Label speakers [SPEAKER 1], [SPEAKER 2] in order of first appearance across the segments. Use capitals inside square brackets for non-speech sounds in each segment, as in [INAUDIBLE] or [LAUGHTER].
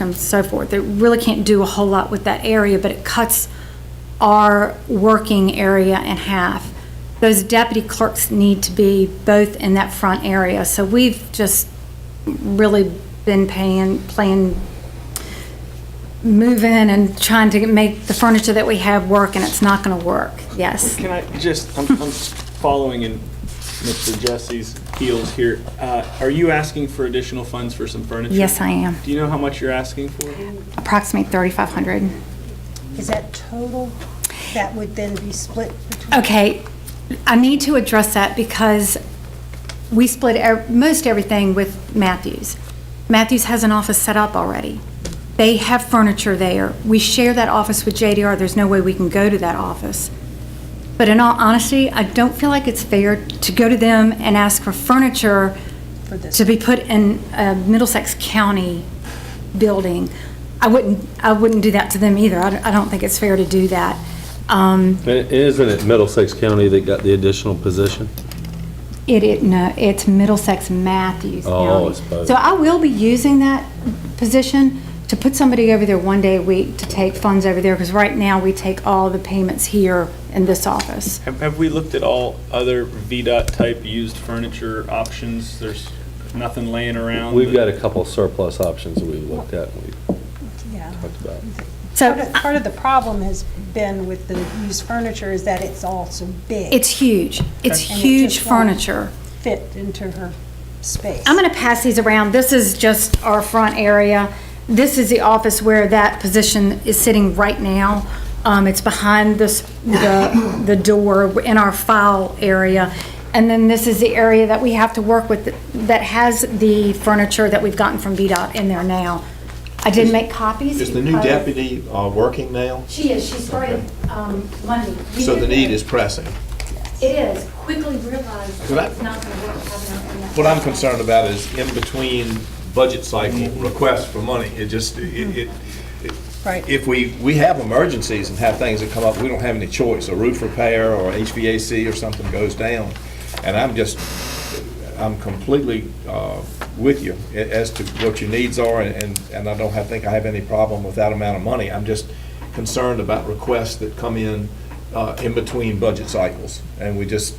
[SPEAKER 1] and so forth. It really can't do a whole lot with that area, but it cuts our working area in half. Those deputy clerks need to be both in that front area, so we've just really been paying, playing, moving and trying to make the furniture that we have work, and it's not gonna work, yes.
[SPEAKER 2] Can I just, I'm, I'm following in Mr. Jesse's heels here. Uh, Are you asking for additional funds for some furniture?
[SPEAKER 1] Yes, I am,
[SPEAKER 2] Do you know how much you're asking for?
[SPEAKER 1] approximately thirty-five hundred.
[SPEAKER 3] Is that total? That would then be split between?
[SPEAKER 1] Okay, I need to address that because we split ev- most everything with Matthews. Matthews has an office set up already. They have furniture there. We share that office with JDR. There's no way we can go to that office. But in all honesty, I don't feel like it's fair to go to them and ask for furniture
[SPEAKER 3] For this.
[SPEAKER 1] to be put in a Middlesex County building. I wouldn't, I wouldn't do that to them either. I don't- I don't think it's fair to do that. Um,
[SPEAKER 4] And Isn't it Middlesex County that got the additional position?
[SPEAKER 1] It, it, no, it's Middlesex Matthews County.
[SPEAKER 4] Oh, it's both.
[SPEAKER 1] So I will be using that position to put somebody over there one day a week to take funds over there, because right now we take all the payments here in this office.
[SPEAKER 2] Have, have we looked at all other VDOT type used furniture options? There's nothing laying around?
[SPEAKER 4] We've
[SPEAKER 2] that-
[SPEAKER 4] got a couple surplus options that we've looked at and we
[SPEAKER 3] Yeah.
[SPEAKER 4] talked about.
[SPEAKER 3] Part
[SPEAKER 1] So uh,
[SPEAKER 3] of- Part of the problem has been with the used furniture is that it's all so big.
[SPEAKER 1] it's huge. It's
[SPEAKER 3] And it
[SPEAKER 1] huge
[SPEAKER 3] just won't
[SPEAKER 1] furniture.
[SPEAKER 3] Fit into her space.
[SPEAKER 1] I'm going to pass these around. This is just our front area. This is the office where that position is sitting right now. Um, it's behind this, the, the door in our file area. And then this is the area that we have to work with that has the furniture that we've gotten from VDOT in there now. I did make copies.
[SPEAKER 5] Is the new
[SPEAKER 1] because-
[SPEAKER 5] deputy uh, working now?
[SPEAKER 1] She is. She started, um, Monday.
[SPEAKER 5] So the need is pressing.
[SPEAKER 1] It is. Quickly realized
[SPEAKER 5] Could I-
[SPEAKER 1] it's not going to work. having her in that-
[SPEAKER 5] What I'm concerned about is in between budget cycle requests for money, it just, it, it-
[SPEAKER 3] Right.
[SPEAKER 5] if we, we have emergencies and have things that come up, we don't have any choice, a roof repair or HVAC or something goes down. And I'm just, I'm completely uh, with you a- as to what your needs are, and, and I don't have, think I have any problem with that amount of money. I'm just concerned about requests that come in, uh, in between budget cycles. And we just,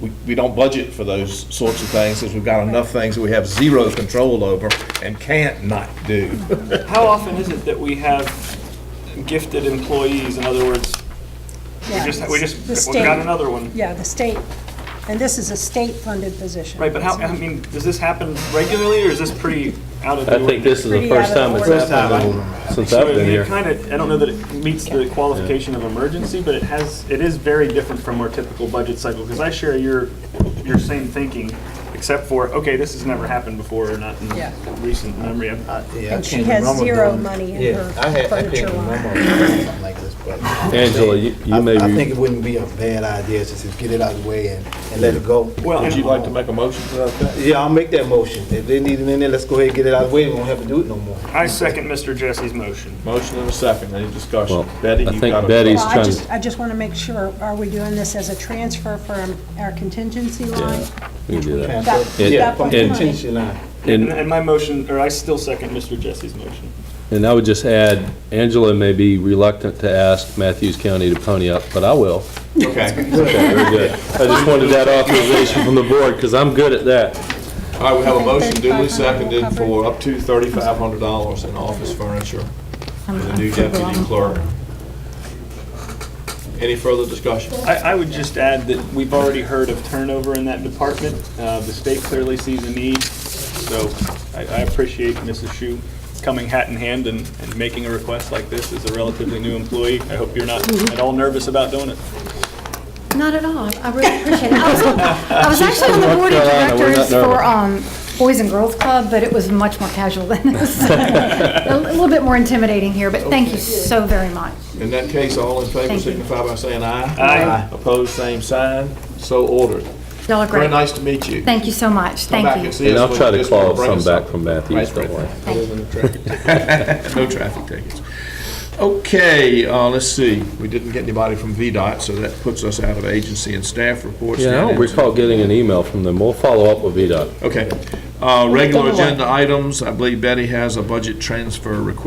[SPEAKER 5] we, we don't budget for those sorts of things, because we've got enough things that we have zero control over and can't not do.
[SPEAKER 2] How often is it that we have gifted employees? In other words, we
[SPEAKER 3] Yeah,
[SPEAKER 2] just, we
[SPEAKER 3] it's the
[SPEAKER 2] just, we
[SPEAKER 3] state.
[SPEAKER 2] got another one.
[SPEAKER 3] Yeah, the state, and this is a state-funded position.
[SPEAKER 2] Right, but how, I mean, does this happen regularly or is this pretty out of the
[SPEAKER 4] I think this is the
[SPEAKER 3] Pretty out
[SPEAKER 4] first
[SPEAKER 3] of the
[SPEAKER 4] time it's
[SPEAKER 3] ordinary.
[SPEAKER 4] happened since
[SPEAKER 2] So
[SPEAKER 4] I've
[SPEAKER 2] I
[SPEAKER 4] been
[SPEAKER 2] mean,
[SPEAKER 4] here.
[SPEAKER 2] it kind of, I don't know that it meets the qualification of emergency, but it has, it is very different from our typical budget cycle, because I share your, your same thinking, except for, okay, this has never happened before, or not
[SPEAKER 3] Yeah.
[SPEAKER 2] in recent memory. I'm-
[SPEAKER 6] Yeah, I
[SPEAKER 3] And she
[SPEAKER 6] can't
[SPEAKER 3] has
[SPEAKER 6] remember
[SPEAKER 3] zero
[SPEAKER 6] doing-
[SPEAKER 3] money in
[SPEAKER 6] Yeah,
[SPEAKER 3] her
[SPEAKER 6] I had- I
[SPEAKER 3] furniture
[SPEAKER 6] can't
[SPEAKER 3] line.
[SPEAKER 6] remember doing something like this, but-
[SPEAKER 4] Angela, you- you
[SPEAKER 6] I-
[SPEAKER 4] may
[SPEAKER 6] I
[SPEAKER 4] be-
[SPEAKER 6] think it wouldn't be a bad idea to just get it out of the way and, and let it go.
[SPEAKER 2] Well,
[SPEAKER 5] Would
[SPEAKER 2] and-
[SPEAKER 5] you like to make a motion to that? effect?
[SPEAKER 6] Yeah, I'll make that motion. If they need it in there, let's go ahead and get it out of the way. We won't have to do it no more.
[SPEAKER 2] I second Mr. Jesse's motion.
[SPEAKER 5] Motion and a second, any discussion?
[SPEAKER 4] Well,
[SPEAKER 5] Betty,
[SPEAKER 4] I
[SPEAKER 5] you
[SPEAKER 4] think
[SPEAKER 5] got a-
[SPEAKER 4] Betty's-
[SPEAKER 3] Well, I
[SPEAKER 4] trying to-
[SPEAKER 3] just, I just want to make sure, are we doing this as a transfer from our contingency line?
[SPEAKER 4] We can do that.
[SPEAKER 3] That-
[SPEAKER 4] And-
[SPEAKER 3] that
[SPEAKER 6] From
[SPEAKER 3] one
[SPEAKER 4] and-
[SPEAKER 3] line.
[SPEAKER 6] contingency line.
[SPEAKER 2] And,
[SPEAKER 4] And,
[SPEAKER 2] and my motion, or I still second Mr. Jesse's motion.
[SPEAKER 4] and I would just add, Angela may be reluctant to ask Matthews County to pony up, but I will.
[SPEAKER 5] Okay.
[SPEAKER 4] Okay, very good. I just wanted that authorization from the board because I'm good at that.
[SPEAKER 5] All right, we have a motion duly
[SPEAKER 3] $3,500
[SPEAKER 5] seconded
[SPEAKER 3] covered.
[SPEAKER 5] for up to thirty-five hundred dollars in office furniture for the new deputy clerk. Any further discussion?
[SPEAKER 2] I, I would just add that we've already heard of turnover in that department. Uh, The state clearly sees a need, so I, I appreciate Mrs. Shu coming hat in hand and, and making a request like this as a relatively new employee. I hope you're not at all nervous about doing it.
[SPEAKER 1] Not at all. I really appreciate it. I was, on- I
[SPEAKER 4] [LAUGHS]
[SPEAKER 1] was actually on the board of
[SPEAKER 4] Carolina. We're not
[SPEAKER 1] directors for um, Boys and Girls Club, but it was much more casual than
[SPEAKER 4] [LAUGHS]
[SPEAKER 1] this. [LAUGHS] A little bit more intimidating here, but thank you so very much.
[SPEAKER 5] In that case, all in favor
[SPEAKER 1] Thank you.
[SPEAKER 5] signify by saying aye.
[SPEAKER 2] Aye.
[SPEAKER 5] Opposed, same sign, so ordered.
[SPEAKER 1] Y'all are
[SPEAKER 5] Very
[SPEAKER 1] great.
[SPEAKER 5] nice to meet you.
[SPEAKER 1] Thank you so much.
[SPEAKER 5] Come back
[SPEAKER 1] Thank you.
[SPEAKER 5] and see
[SPEAKER 4] And
[SPEAKER 5] us
[SPEAKER 4] I'll
[SPEAKER 5] when
[SPEAKER 4] try to
[SPEAKER 5] the district
[SPEAKER 4] claw
[SPEAKER 5] brings
[SPEAKER 4] some
[SPEAKER 5] us
[SPEAKER 4] back
[SPEAKER 5] something.
[SPEAKER 4] from Matthews,
[SPEAKER 5] Right,
[SPEAKER 4] don't worry.
[SPEAKER 5] No traffic tickets. Okay, uh, let's see, we didn't get anybody from VDOT, so that puts us out of agency and staff reports.
[SPEAKER 4] Yeah, I
[SPEAKER 5] down
[SPEAKER 4] don't
[SPEAKER 5] into-
[SPEAKER 4] recall getting an email from them. We'll follow up with VDOT.
[SPEAKER 5] Okay, uh, regular
[SPEAKER 3] Double up.
[SPEAKER 5] agenda items, I believe Betty has a budget transfer request